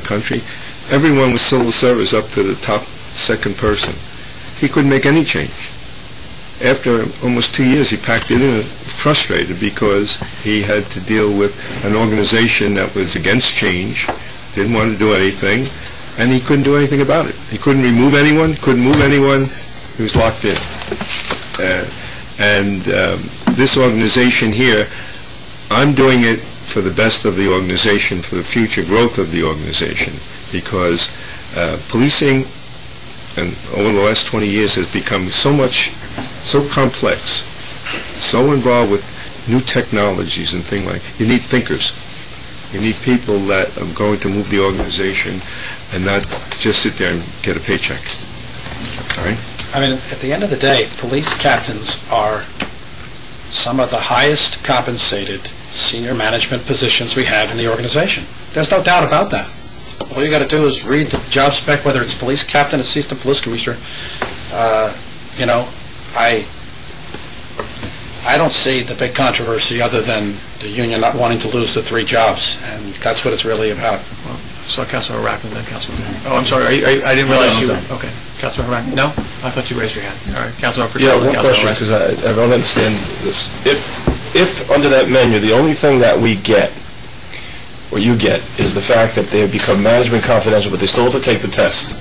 country, everyone was civil service up to the top second person. He couldn't make any change. After almost two years, he packed it in, frustrated because he had to deal with an organization that was against change, didn't want to do anything, and he couldn't do anything about it. He couldn't remove anyone, couldn't move anyone, he was locked in. Uh, And um, this organization here, I'm doing it for the best of the organization, for the future growth of the organization, because uh, policing, and over the last 20 years, has become so much, so complex, so involved with new technologies and things like, you need thinkers. You need people that are going to move the organization and not just sit there and get a paycheck. All right? I mean, at the end of the day, police captains are some of the highest compensated senior management positions we have in the organization. There's no doubt about that. All you gotta do is read the job spec, whether it's police captain, assistant police commissioner. Uh, You know, I, I don't see the big controversy other than the union not wanting to lose the three jobs, and that's what it's really about. So Councilor Rackman, then Councilor... Oh, I'm sorry, are you- are you- I didn't realize you... Okay, Councilor Rackman, no? I thought you raised your hand. All right, Councilor Yeah, Frisella, one then question, Councilor Rackman. because I I don't understand this. If, if under that menu, the only thing that we get, or you get, is the fact that they have become management confidential, but they still have to take the test,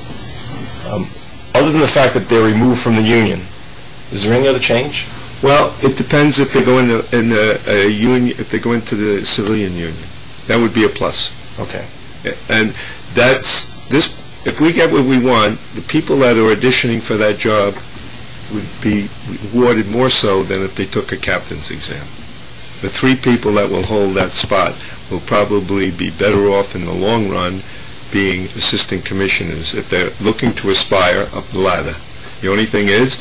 um, other than the fact that they're removed from the union, is there any other change? Well, it depends if they go in the, in the, uh, union, if they go into the civilian union. That would be a plus. Okay. And that's, this, if we get what we want, the people that are auditioning for that job would be rewarded more so than if they took a captain's exam. The three people that will hold that spot will probably be better off in the long run being assistant commissioners if they're looking to aspire up the ladder. The only thing is,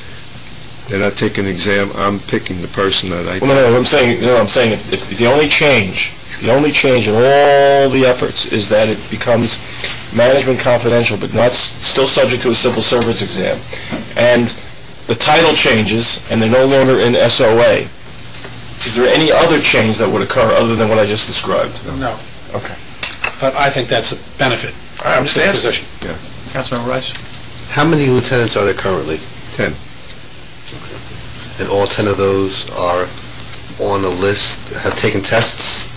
they're not taking an exam, I'm picking the person that I Well, no, no, what I'm saying, no, I'm saying, if- if the only change, the only change in all the efforts is that it becomes management confidential, but not, s- still subject to a civil service exam. And the title changes, and they're no longer in SOA. Is there any other change that would occur other than what I just described? No. Okay. But I think that's a benefit. All right, I'm just to the asking. position. Councilor Rice? How many lieutenants are there currently? 10. And all 10 of those are on a list, have taken tests?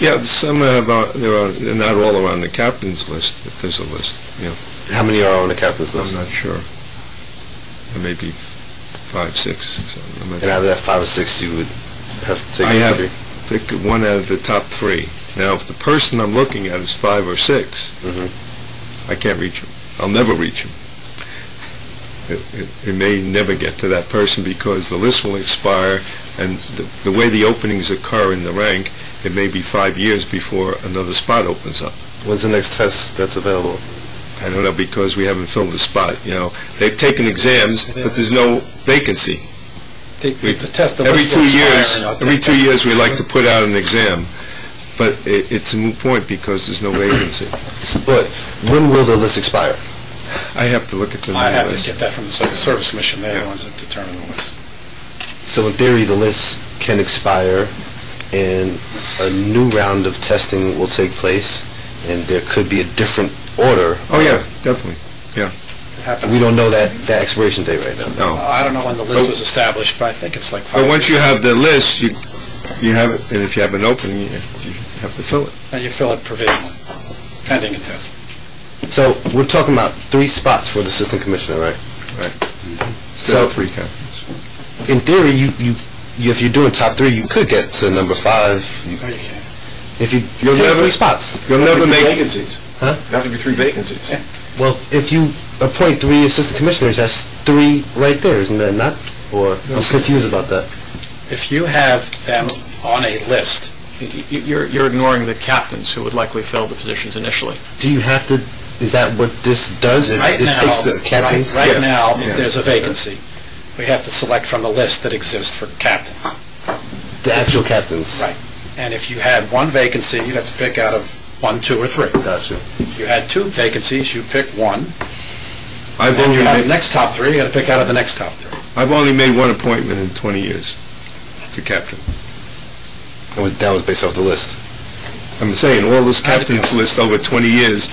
Yeah, some have, uh, there are, they're not all are on the captain's list, if there's a list, yeah. How many are on the captain's I'm list? not sure. There may be five, six, so I'm not And out of that five or six, you would have taken? I have- three? pick one out of the top three. Now, if the person I'm looking at is five or six, Mhm. I can't reach him. I'll never reach him. It, it, it may never get to that person because the list will expire, and the, the way the openings occur in the rank, it may be five years before another spot opens up. When's the next test that's available? I don't know, because we haven't filled the spot, you know. They've taken exams, but there's no vacancy. The- the- the test- the Every list will two expire, years, and I'll every take two that. years, we like to put out an exam, but i it's a moot point because there's no vacancy. But when will the list expire? I have to look at the new list. I have to get that from the Civil Service Commission, they're the ones that determine the list. So in theory, the list can expire, and a new round of testing will take place, and there could be a different order. Oh, yeah, definitely, We don't know that, that expiration date right no. now. I don't know when the list was established, but I think it's like five. But once you have the list, you, you have it, and if you have an opening, you you have to fill it. years. And you fill it provisionally, pending a test. So we're talking about three spots for the assistant commissioner, right? Instead of So- three captains. in theory, you, you, you- if you're doing top three, you could get to number five. You- No, you can't. If you You'll take never- three spots. You'll never make, Vacancies. Huh? There have to be three vacancies. Well, if you appoint three assistant commissioners, that's three right there, isn't that not? Or I'm confused about that. If you have them on a list, Y- y- You're you're ignoring the captains who would likely fill the positions initially. Do you have to? Is that what this does? It, right it now, takes the right captains. right Yeah. now, if Yeah. there's a vacancy, we have to select from the list that exists for captains. The actual captains. Right. And if you had one vacancy, you'd have to pick out of one, two, or three. Gotcha. If you had two vacancies, you pick one, I've and only you have made, the next top three, you gotta pick out of the next top three. I've only made one appointment in 20 years to captain. That was, that was based off the list. I'm saying, all this captain's list over 20 years,